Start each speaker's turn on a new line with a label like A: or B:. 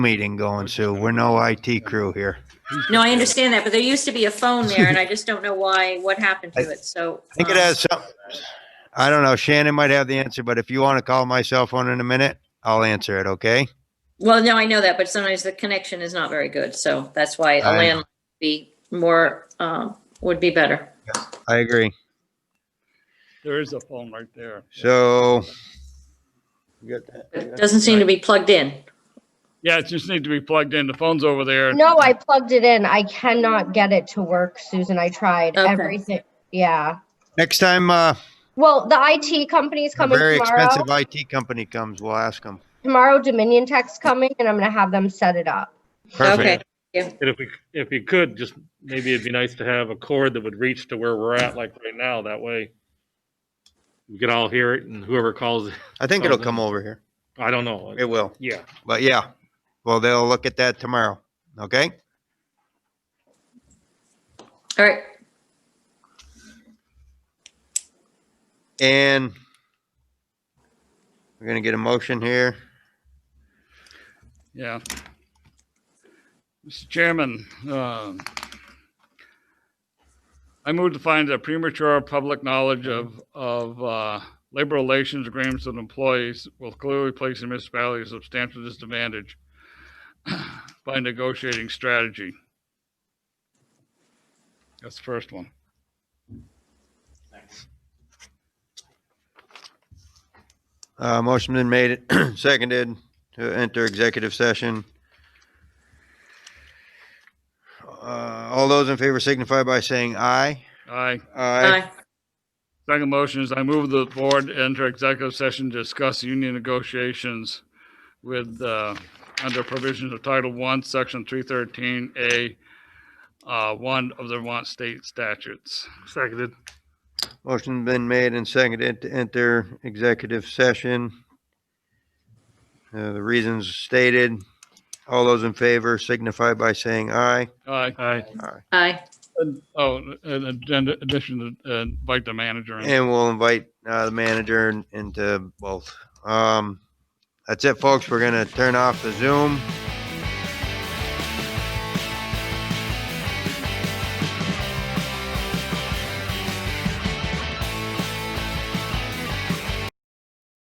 A: meeting going, Sue. We're no IT crew here.
B: No, I understand that, but there used to be a phone there and I just don't know why, what happened to
A: I-
B: it, so.
A: I think it
B: um,
A: has some, I don't know, Shannon might have the answer, but if you want to call my cell phone in a minute, I'll answer it, okay?
B: Well, no, I know that, but sometimes the connection is not very good, so that's why a
A: I-
B: landline would be more, um, would be better.
A: I agree.
C: There is a phone right there.
A: So.
B: It Doesn't seem to be plugged in.
C: Yeah, it just needs to be plugged in. The phone's over there.
D: No, I plugged it in. I cannot get it to work, Susan. I tried
B: Okay.
D: everything. Yeah.
A: Next time, uh,
D: Well, the IT company's
A: a
D: coming
A: very
D: tomorrow.
A: expensive IT company comes, we'll ask them.
D: Tomorrow Dominion Tech's coming and I'm gonna have them set it up.
B: Okay,
A: Perfect.
E: And if we, if you could, just maybe it'd be nice to have a cord that would reach to where we're at, like right now, that way we could all hear it and whoever calls,
A: I think it'll come over here.
E: I don't know.
A: It will.
E: Yeah,
A: But yeah, well, they'll look at that tomorrow, okay?
B: all right.
A: And we're gonna get a motion here.
C: Yeah. Mr. Chairman, um, I move to find that premature public knowledge of, of uh, labor relations agreements with employees will clearly place the municipality at a substantial disadvantage by negotiating strategy. That's the first one.
A: Uh, motion been made, seconded to enter executive session. Uh, all those in favor signify by saying aye.
C: Aye.
A: Aye.
B: Aye.
C: Second motion is I move the board enter executive session to discuss union negotiations with, uh, under provisions of Title One, Section three thirteen A, uh, one of the Vermont state statutes.
E: seconded.
A: Motion been made and seconded to enter executive session. Uh, the reasons stated, all those in favor signify by saying aye.
C: Aye.
E: Aye.
B: Aye.
C: oh, in agenda- addition, to, uh, invite the manager in.
A: And we'll invite, uh, the manager in- into both. Um, that's it, folks. We're gonna turn off the Zoom.